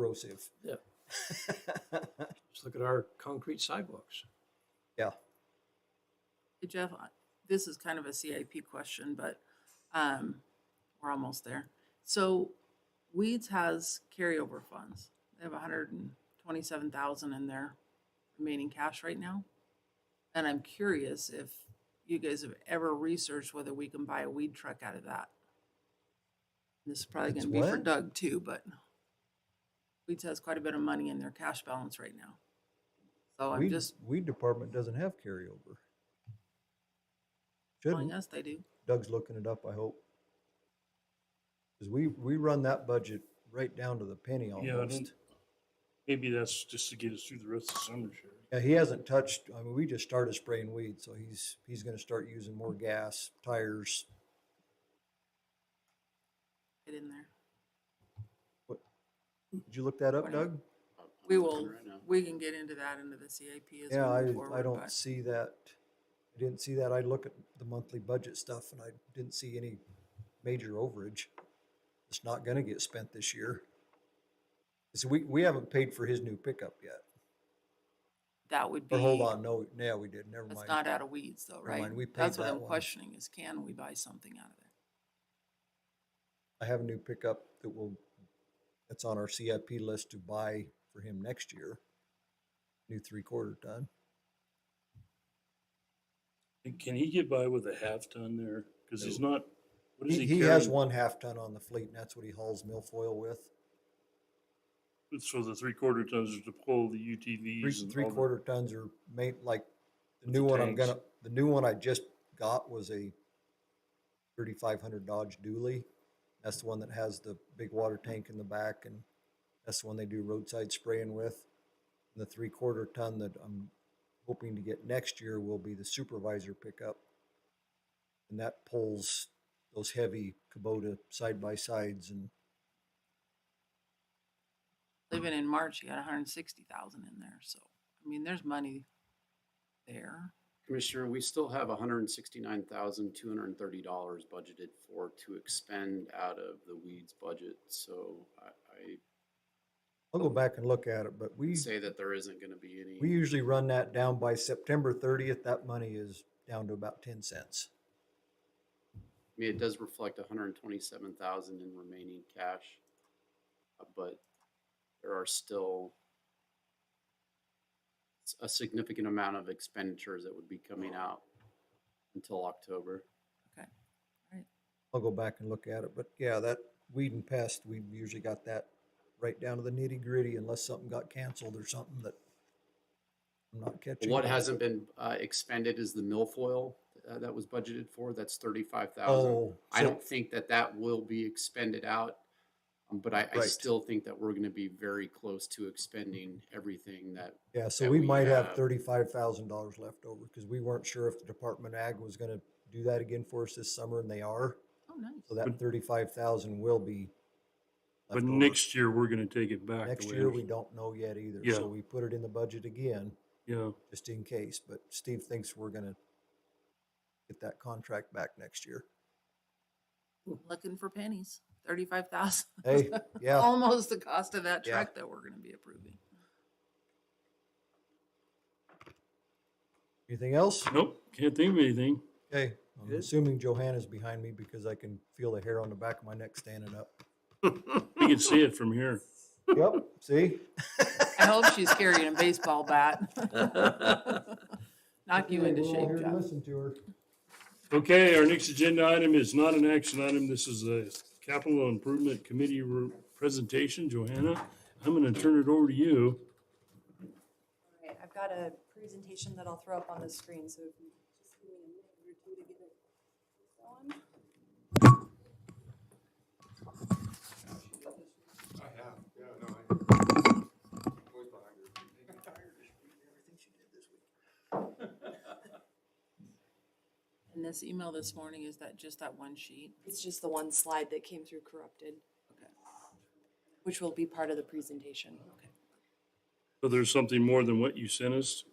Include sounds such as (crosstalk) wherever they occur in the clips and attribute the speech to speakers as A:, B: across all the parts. A: corrosive.
B: (laughs)
C: Yeah. Just look at our concrete sidewalks.
D: Hey, Jeff, I- this is kind of a CIP question, but um, we're almost there. So Weeds has carryover funds. They have hundred and twenty-seven thousand in their remaining cash right now. And I'm curious if you guys have ever researched whether we can buy a weed truck out of that. This is probably
A: It's
D: gonna be for
A: what?
D: Doug too, but Weeds has quite a bit of money in their cash balance right now. So I'm
A: Weed,
D: just
A: weed department doesn't have carryover.
D: telling
A: Shouldn't.
D: us they do.
A: Doug's looking it up, I hope. Cause we, we run that budget right down to the penny
B: Yeah, I
A: almost.
B: don't, maybe that's just to get us through the rest of the summer, Sherry.
A: Yeah, he hasn't touched, I mean, we just started spraying weed, so he's, he's gonna start using more gas, tires.
D: Get in there.
A: Did you look that up,
D: Whatever.
A: Doug?
D: We will, we can get into that into the CAP as
A: Yeah,
D: we
A: I,
D: move forward.
A: I don't
D: but-
A: see that. I didn't see that. I look at the monthly budget stuff and I didn't see any major overage. It's not gonna get spent this year. So we, we haven't paid for his new pickup yet.
D: That would be.
A: Or hold on, no, yeah, we did, never
D: That's
A: mind.
D: not out of weeds though,
A: Never
D: right?
A: mind, we paid
D: That's what
A: that
D: I'm
A: one.
D: questioning is can we buy something out of there?
A: I have a new pickup that will, that's on our CIP list to buy for him next year. New three quarter ton.
B: And Can he get by with a half ton there? Cause he's not, what is
A: He,
B: he
A: he
B: carrying?
A: has one half ton on the fleet and that's what he hauls milfoil with.
B: So the three quarter tons is to pull the
A: Three,
B: UTVs and
A: three
B: all the-
A: quarter tons are made, like, the
B: With the
A: new one I'm
B: tanks.
A: gonna, the new one I just got was a thirty-five hundred Dodge Dually. That's the one that has the big water tank in the back and that's the one they do roadside spraying with. And the three-quarter ton that I'm hoping to get next year will be the supervisor pickup. And that pulls those heavy Kubota side-by-sides and Hmm.
D: Even in March, you got hundred and sixty thousand in there, so, I mean, there's money there.
E: Commissioner, we still have hundred and sixty-nine thousand, two hundred and thirty dollars budgeted for to expend out of the weeds budget, so I,
A: I'll go back and look at it, but
E: I
A: we.
E: say that there isn't gonna be any.
A: We usually run that down by September thirtieth, that money is down to about ten cents.
E: I mean, it does reflect hundred and twenty-seven thousand in remaining cash. uh, But there are still s- a significant amount of expenditures that would be coming out until October.
A: I'll go back and look at it, but yeah, that weed and pest, we usually got that right down to the nitty gritty unless something got canceled or something that I'm not catching.
E: What hasn't been uh, expended is the milfoil uh, that was budgeted for. That's thirty-five thousand.
A: Oh,
E: I
A: so-
E: don't think that that will be expended out, um, but I, I
A: Right.
E: still think that we're going to be very close to expending everything that
A: Yeah, so
E: that
A: we
E: we
A: might have
E: have.
A: thirty-five thousand dollars left over because we weren't sure if the Department of Ag was gonna do that again for us this summer and they are.
D: Oh, nice.
A: So that
B: But-
A: thirty-five thousand will be.
B: But
A: left over.
B: next year, we're gonna take it back. the
A: Next
B: way
A: year,
B: it-
A: we don't know yet either,
B: Yeah.
A: so we put it in the budget again.
B: Yeah,
A: just in case, but Steve thinks we're gonna get that contract back next year.
D: Looking for pennies, thirty-five thousand. (laughs)
A: Hey, yeah,
D: Almost the cost of that
A: Yeah.
D: truck that we're gonna be approving.
A: anything else?
B: nope, can't think of anything.
A: Okay, I'm
C: Good.
A: assuming Johanna's behind me because I can feel the hair on the back of my neck standing up.
B: You can see it from here.
A: Yep, see?
D: I hope she's carrying a baseball (laughs) bat. Knock you into
A: We're all here
D: shape,
A: to
D: Jeff.
A: Listen to her.
B: (laughs) Okay, our next agenda item is not an action item. This is a capital improvement committee re- presentation. Johanna, I'm gonna turn it over to you.
F: All right, I've got a presentation that I'll throw up on the screen, so if you just give me a minute or two to get it going.
D: And this email this morning, is that just that one sheet?
F: It's just the one slide that came through corrupted.
D: Okay.
F: Which will be part of the presentation. Okay.
B: So there's something more than what you sent us?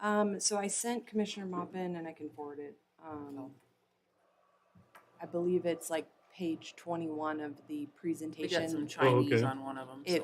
F: Um, so I sent Commissioner Mopin and I can forward it.
D: Oh.
F: Um, I believe it's like page twenty-one of the
D: We got some
F: presentation.
D: Chinese
B: okay.
D: on one of them.
F: It